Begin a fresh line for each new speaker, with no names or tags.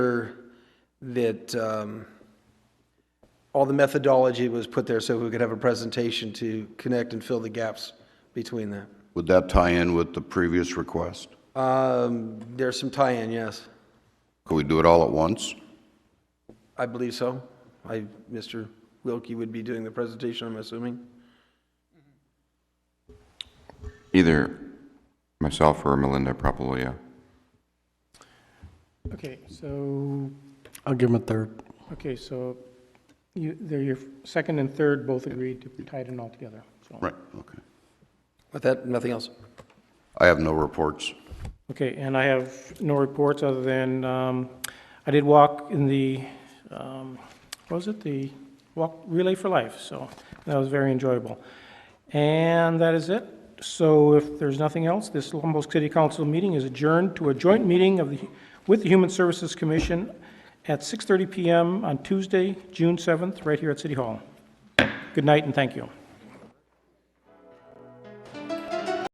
sure that um, all the methodology was put there so we could have a presentation to connect and fill the gaps between that.
Would that tie in with the previous request?
Um, There's some tie-in, yes.
Could we do it all at once?
I believe so. I, Mr. Wilkie would be doing the presentation, I'm assuming.
Either myself or Melinda, probably, yeah.
Okay, so,
I'll give him a third.
okay, so you, they're your second and third both agreed to tie it in altogether. so.
Right, okay.
With that, nothing else.
I have no reports.
Okay, and I have no reports other than, um, I did walk in the, um, what was it, the Walk Relay for Life, so that was very enjoyable. And that is it. So if there's nothing else, this Humboldt City Council meeting is adjourned to a joint meeting of the, with the Human Services Commission at 6:30 PM on Tuesday, June 7th, right here at City Hall. Good night and thank you.